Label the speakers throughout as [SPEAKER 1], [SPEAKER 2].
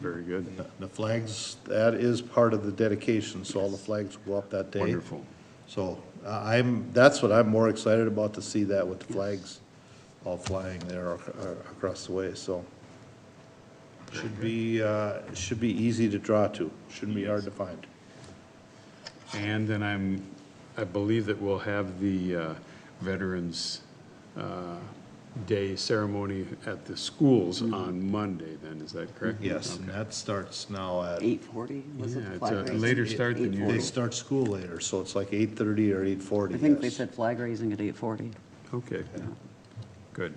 [SPEAKER 1] Very good.
[SPEAKER 2] And the- The flags, that is part of the dedication, so all the flags will go up that day.
[SPEAKER 1] Wonderful.
[SPEAKER 2] So I- I'm, that's what I'm more excited about, to see that with the flags all flying there ac- uh, across the way, so. Should be, uh, should be easy to draw to, shouldn't be hard to find.
[SPEAKER 1] And then I'm, I believe that we'll have the uh, Veterans uh, Day ceremony at the schools on Monday then, is that correct?
[SPEAKER 2] Yes, and that starts now at,
[SPEAKER 3] Eight forty, was it
[SPEAKER 1] Yeah,
[SPEAKER 3] the
[SPEAKER 1] it's
[SPEAKER 3] flag
[SPEAKER 1] a
[SPEAKER 3] raising?
[SPEAKER 1] later start than
[SPEAKER 3] 8:40.
[SPEAKER 2] they
[SPEAKER 1] usual.
[SPEAKER 2] start school later, so it's like eight-thirty or eight-forty,
[SPEAKER 3] I think they said flag raising at eight forty.
[SPEAKER 1] Okay, good.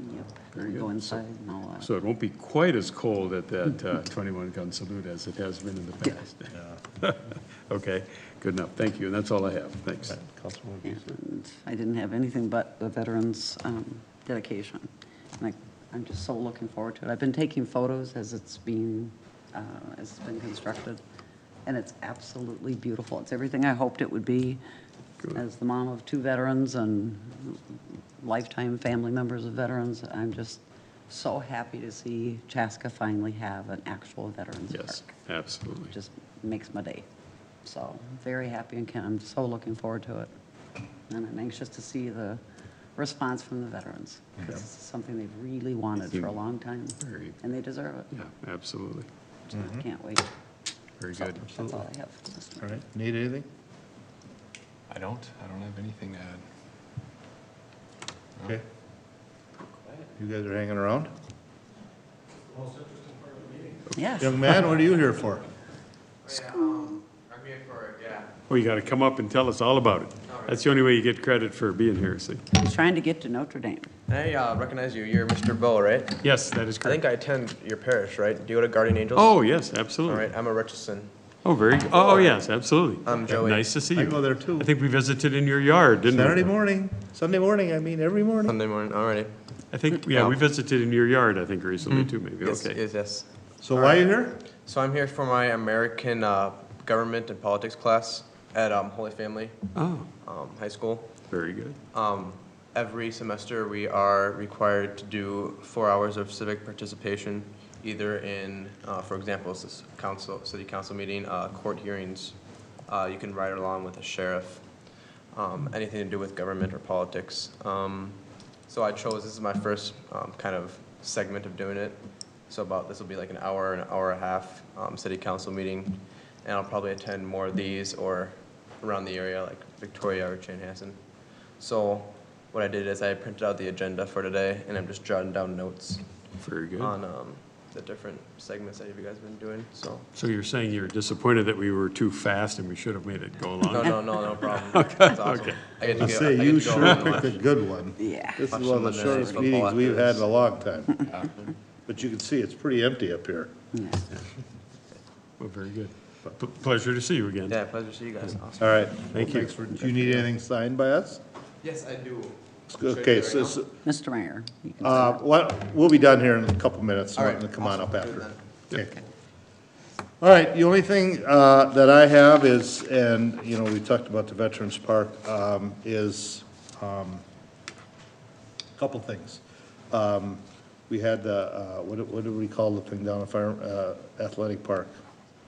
[SPEAKER 3] Yep.
[SPEAKER 1] Very
[SPEAKER 3] We Go
[SPEAKER 1] good. So-
[SPEAKER 3] inside and all that.
[SPEAKER 1] So it won't be quite as cold at that uh, 21 gun salute as it has been in the past. Okay, good enough, thank you, and that's all I have, thanks.
[SPEAKER 2] Councilwoman Beasley?
[SPEAKER 3] And I didn't have anything but the veterans' um, dedication. And I, I'm just so looking forward to it. I've been taking photos as it's being, uh, as it's been constructed, and it's absolutely beautiful. It's everything I hoped it would be as the mom of two veterans and lifetime family members of veterans. I'm just so happy to see Chaska finally have an actual veterans' park
[SPEAKER 1] Yes, absolutely.
[SPEAKER 3] just makes my day. So, very happy and can- I'm so looking forward to it. And I'm anxious to see the response from the veterans. 'cause This is something they've really wanted for a long time,
[SPEAKER 1] Very.
[SPEAKER 3] and they deserve it.
[SPEAKER 1] Yeah, absolutely,
[SPEAKER 3] So I can't wait.
[SPEAKER 1] very
[SPEAKER 3] So,
[SPEAKER 1] good.
[SPEAKER 3] That's all I have.
[SPEAKER 2] Mm-hmm. All right, need anything?
[SPEAKER 4] I don't. I don't have anything to add.
[SPEAKER 2] Okay. You guys are hanging around?
[SPEAKER 3] Yes.
[SPEAKER 2] Young man, what are you here for?
[SPEAKER 5] Yeah, um, I'm here for it, yeah.
[SPEAKER 1] Well, you got to come up and tell us all about it. That's the only way you get credit for being here, see?
[SPEAKER 3] He's trying to get to Notre Dame.
[SPEAKER 5] Hey, uh, recognize you. You're Mr. Bo, right?
[SPEAKER 1] Yes, that is
[SPEAKER 5] I think
[SPEAKER 1] correct.
[SPEAKER 5] I attend your parish, right? Do you go to Guardian Angels?
[SPEAKER 1] Oh, yes,
[SPEAKER 5] All
[SPEAKER 1] absolutely.
[SPEAKER 5] right, I'm a Richardson.
[SPEAKER 1] Oh, very, oh, yes, absolutely.
[SPEAKER 5] I'm Joey.
[SPEAKER 1] Nice to see you.
[SPEAKER 2] I go there too.
[SPEAKER 1] I think we visited in your yard, didn't we?
[SPEAKER 2] Saturday morning, Sunday morning, I mean, every morning.
[SPEAKER 5] Sunday morning, all right.
[SPEAKER 1] I think, yeah, we visited in your yard, I think recently too, maybe,
[SPEAKER 5] Yes,
[SPEAKER 1] okay.
[SPEAKER 5] yes, yes.
[SPEAKER 2] So why are you here?
[SPEAKER 5] So I'm here for my American uh, Government and Politics class at um, Holy Family
[SPEAKER 1] Oh,
[SPEAKER 5] um, High School.
[SPEAKER 1] very good.
[SPEAKER 5] Um, Every semester, we are required to do four hours of civic participation, either in, uh, for example, this council, city council meeting, uh, court hearings. Uh, You can ride along with a sheriff, um, anything to do with government or politics. Um, So I chose, this is my first um, kind of segment of doing it. So about, this will be like an hour, an hour and a half, um, city council meeting. And I'll probably attend more of these or around the area, like Victoria or Chanhassen. So what I did is I printed out the agenda for today, and I'm just jotting down notes
[SPEAKER 1] Very good.
[SPEAKER 5] on um, the different segments that you guys have been doing, so.
[SPEAKER 1] So you're saying you're disappointed that we were too fast and we should have made it go
[SPEAKER 5] No,
[SPEAKER 1] along?
[SPEAKER 5] no, no, no problem. That's awesome. I get to
[SPEAKER 2] I
[SPEAKER 5] go-
[SPEAKER 2] say,
[SPEAKER 5] I get
[SPEAKER 2] you
[SPEAKER 5] to go
[SPEAKER 2] sure
[SPEAKER 5] on
[SPEAKER 2] picked a good one.
[SPEAKER 3] Yeah.
[SPEAKER 2] This is
[SPEAKER 5] Watch
[SPEAKER 2] one of the
[SPEAKER 5] some of the
[SPEAKER 2] shortest
[SPEAKER 5] football
[SPEAKER 2] meetings
[SPEAKER 5] after
[SPEAKER 2] we've had in
[SPEAKER 5] this.
[SPEAKER 2] a long time. But you can see it's pretty empty up here.
[SPEAKER 3] Yeah.
[SPEAKER 1] Well, very good. P- Pleasure to see you again.
[SPEAKER 5] Yeah, pleasure to see you guys. Awesome.
[SPEAKER 2] All right.
[SPEAKER 1] Thank you.
[SPEAKER 2] Thanks for- Do you need anything signed by us?
[SPEAKER 5] Yes, I do.
[SPEAKER 2] Okay, so, so,
[SPEAKER 3] Mr. Mayor. you can
[SPEAKER 2] uh, what, we'll be done here in a couple minutes.
[SPEAKER 5] All right,
[SPEAKER 2] Martin, Come on up
[SPEAKER 5] awesome.
[SPEAKER 2] after. Okay. All right, the only thing uh, that I have is, and, you know, we talked about the Veterans Park, um, is a couple things. Um, We had the, uh, what do- what do we call the thing down at Fire, uh, Athletic Park?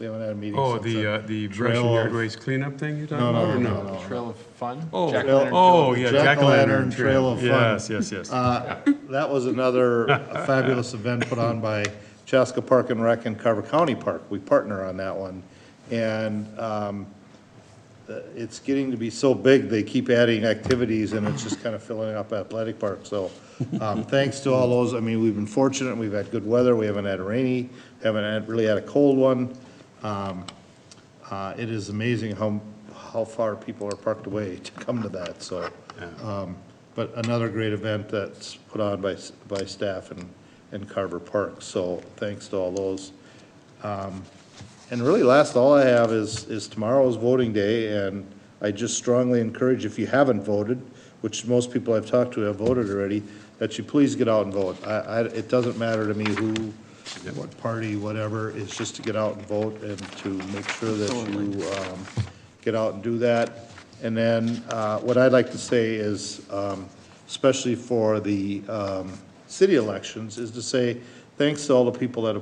[SPEAKER 2] We haven't had a meeting
[SPEAKER 1] Oh,
[SPEAKER 2] since.
[SPEAKER 1] the,
[SPEAKER 2] then.
[SPEAKER 1] uh, the
[SPEAKER 2] Trail
[SPEAKER 1] Russian yard
[SPEAKER 2] of-
[SPEAKER 1] waste cleanup thing you're talking
[SPEAKER 2] No,
[SPEAKER 1] about?
[SPEAKER 2] no,
[SPEAKER 1] or
[SPEAKER 2] no, no.
[SPEAKER 4] Trail of Fun?
[SPEAKER 1] Oh,
[SPEAKER 4] Jack
[SPEAKER 2] Trail-
[SPEAKER 4] Lantern
[SPEAKER 1] Oh,
[SPEAKER 4] Trail.
[SPEAKER 1] yeah,
[SPEAKER 2] Jack-o'-lantern
[SPEAKER 1] jack-o'-lantern.
[SPEAKER 2] Trail of Fun.
[SPEAKER 1] Yes, yes, yes.
[SPEAKER 2] Uh, That was another fabulous event put on by Chaska Park and Rec and Carver County Park. We partner on that one. And um, uh, it's getting to be so big, they keep adding activities, and it's just kind of filling up athletic park. So um, thanks to all those, I mean, we've been fortunate, we've had good weather, we haven't had a rainy, haven't had, really had a cold one. Um, uh, It is amazing how, how far people are parked away to come to that, so. um, But another great event that's put on by, s- by staff and, and Carver Park, so thanks to all those. And really, last, all I have is, is tomorrow's voting day, and I just strongly encourage, if you haven't voted, which most people I've talked to have voted already, that you please get out and vote. I, I, it doesn't matter to me who, what party, whatever, it's just to get out and vote and to make sure that you, um, get out and do that. And then, uh, what I'd like to say is, um, especially for the, um, city elections, is to say, thanks to all the people that have